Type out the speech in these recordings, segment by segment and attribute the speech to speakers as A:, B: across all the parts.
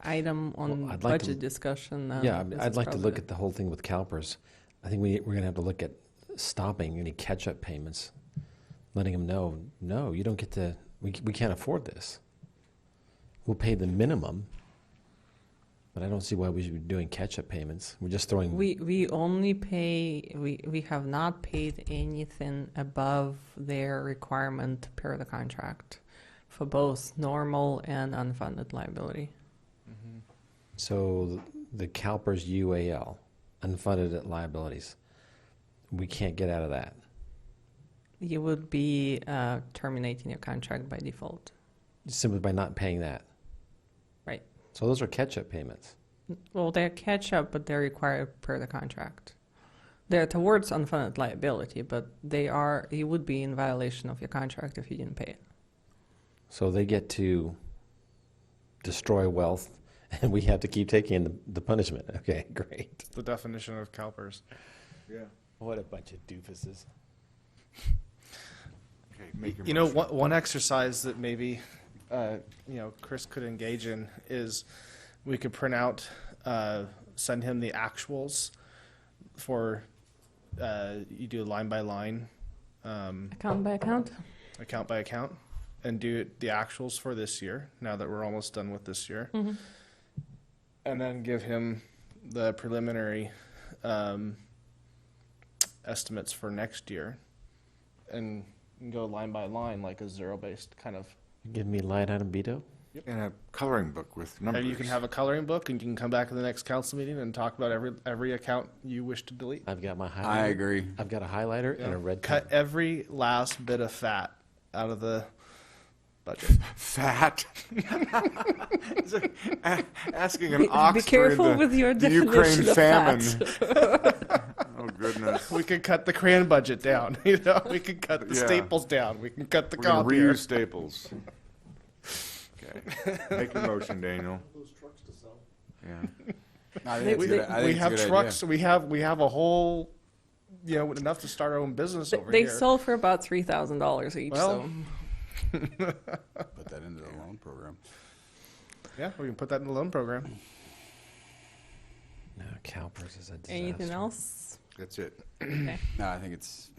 A: item on
B: Well, I'd like to-
A: budget discussion. uh,
B: Yeah, I mean,
A: this
B: I'd
A: is
B: like to
A: probably
B: look
A: the-
B: at the whole thing with CalPERS. I think we, we're gonna have to look at stopping any catch-up payments, letting them know, no, you don't get to, we, c- we can't afford this. We'll pay the minimum, but I don't see why we should be doing catch-up payments. We're just throwing,
A: We we only pay we we have not paid anything above their requirement per the contract for both normal and unfunded liability.
C: Mm-hmm.
B: so the CalPERS UAL, unfunded liabilities, we can't get out of that.
A: You would be uh, terminating your contract by default.
B: simply by not paying that.
A: Right.
B: So those are catch-up payments.
A: Well, they're catch up, but they're required per the contract. They're towards unfunded liability, but they are you would be in violation of your contract if you didn't pay it.
B: So they get to destroy wealth, and we have to keep taking the, the punishment. Okay, great.
C: The definition of CalPERS.
D: Yeah.
E: What a bunch of doofuses.
D: Okay, make your
C: You know,
D: motion.
C: one, one exercise that maybe, uh, you know, Chris could engage in is we could print out, uh, send him the actuals for, uh, you do line by line, um,
A: Account by account.
C: account by account, and do the actuals for this year, now that we're almost done with this year.
A: Mhm.
C: And then give him the preliminary, um, estimates for next year. And go line by line, like a zero-based kind of
B: Give me line item veto.
D: And a coloring book with numbers.
C: And you can have a coloring book, and you can come back to the next council meeting and talk about every every account you wish to delete.
B: I've got my highlighter.
D: I agree.
B: I've got a highlighter and a red
C: Cut
B: pen.
C: every last bit of fat out of the budget.
D: Fat. It's like a- Asking an
A: Be-
D: ox
A: be
D: during
A: careful
D: the-
A: with your
D: the
A: definition
D: Ukraine
A: of
D: famine.
A: fat.
D: Oh, goodness.
C: we could cut the crayon budget down. You know, we could cut the
D: Yeah.
C: staples down. We can cut the
D: We're gonna
C: copier.
D: reuse staples. Okay, make your motion, Daniel. Those trucks to sell. Yeah. I
A: They-
D: think it's a good-
A: they-
D: I think
C: We
D: it's a
C: have
D: good idea.
C: trucks. We have we have a whole, you know, enough to start our own business
A: They,
C: over
A: they
C: here.
A: sold for about three thousand dollars each.
C: Well,
A: so.
D: Put that into the loan program.
C: yeah, we can put that in the loan program.
B: No, CalPERS is a disaster.
A: Anything else?
D: That's it.
A: Okay.
F: No, I think it's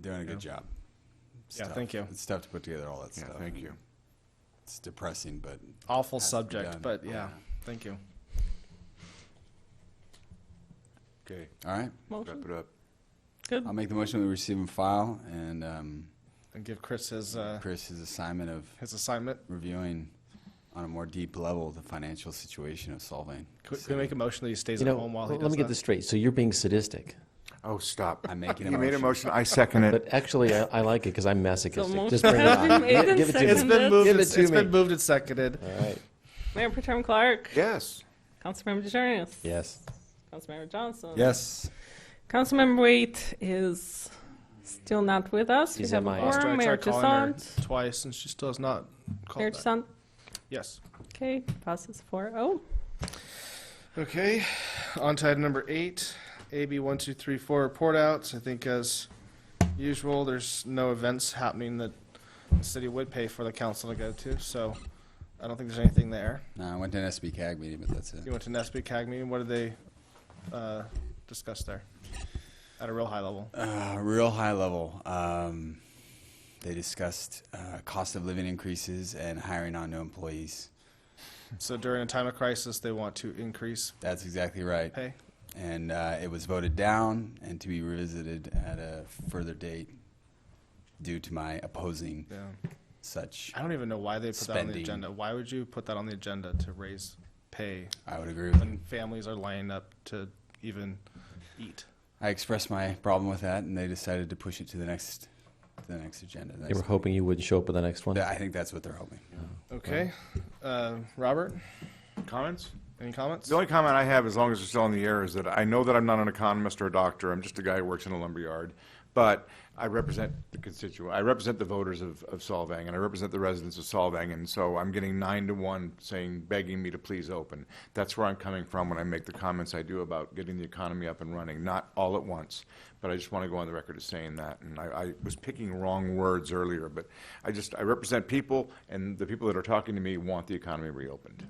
F: doing a good job. It's
C: Yeah,
F: tough.
C: thank you.
F: It's tough to put together all that
D: Yeah,
F: stuff.
D: thank you.
F: It's depressing, but
C: Awful
F: Has to be
C: subject,
F: done.
C: but yeah,
F: Yeah.
C: thank you.
D: Okay,
F: all right.
A: Motion.
D: wrap it up.
A: Good.
F: I'll make the motion we receive and file, and um,
C: And give Chris his uh,
F: Chris his assignment of
C: his assignment.
F: reviewing on a more deep level the financial situation of Solvang.
C: Could, could we make a motion that he stays
B: You
C: at
B: know,
C: home while
B: let
C: he
B: let
C: does
B: me get
C: that?
B: this straight. So you're being sadistic,
D: Oh, stop.
F: I'm making a
D: You made a
F: motion.
D: motion, I second it.
B: but actually I, I like it because I'm masochistic.
A: motion
B: Just bring it
A: has
B: on.
A: been made
B: Gi-
A: and
B: give it to me.
C: It's been
A: Seconded.
C: moved.
B: Give
C: and-
B: it
C: It's
B: to me.
C: been moved and seconded.
B: All right.
A: Mayor Protem Clark,
D: Yes.
A: Councilmember DeJarnis,
B: Yes.
A: Councilmember Johnson.
F: Yes.
A: Councilmember Waite is still not with us. We
B: He's
A: have a
B: MIA.
C: Last I
A: quorum. Mayor
C: tried calling her
A: Toussaint.
C: twice, and she still has not called
A: Mayor
C: back.
A: Toussaint.
C: Yes.
A: Okay, passes oh. 4-0.
C: Okay. On to item number eight, AB one two three four report outs. I think as usual, there's no events happening that the city would pay for the council to go to, so I don't think there's anything there.
F: No, I went to an SB CAG meeting, but that's
C: You
F: it.
C: went to Nesby CAG meeting. What did they uh, discuss there? At a real high level.
F: Uh, real high level. Um, they discussed uh, cost of living increases and hiring on new employees.
C: So during a time of crisis, they want to increase
F: That's exactly right.
C: pay.
F: and uh, it was voted down and to be revisited at a further date due to my opposing
C: Yeah.
F: such.
C: I don't even know why they put that on the
F: Spending.
C: agenda. Why would you put that on the agenda to raise pay
F: I would agree with
C: when
F: them.
C: families are lining up to even eat?
F: I expressed my problem with that, and they decided to push it to the next, to the next agenda.
B: They were hoping you wouldn't show up at the next one.
F: That- I think that's what they're hoping.
C: Okay. Uh, Robert,
D: Comments?
C: any comments?
D: The only comment I have, as long as we're still on the air, is that I know that I'm not an economist or a doctor. I'm just a guy who works in a lumberyard. But I represent the constituent. I represent the voters of, of Solvang, and I represent the residents of Solvang. And so I'm getting nine to one saying, begging me to please open. That's where I'm coming from when I make the comments I do about getting the economy up and running, not all at once. But I just want to go on the record as saying that. And I, I was picking wrong words earlier, but I just, I represent people, and the people that are talking to me want the economy reopened.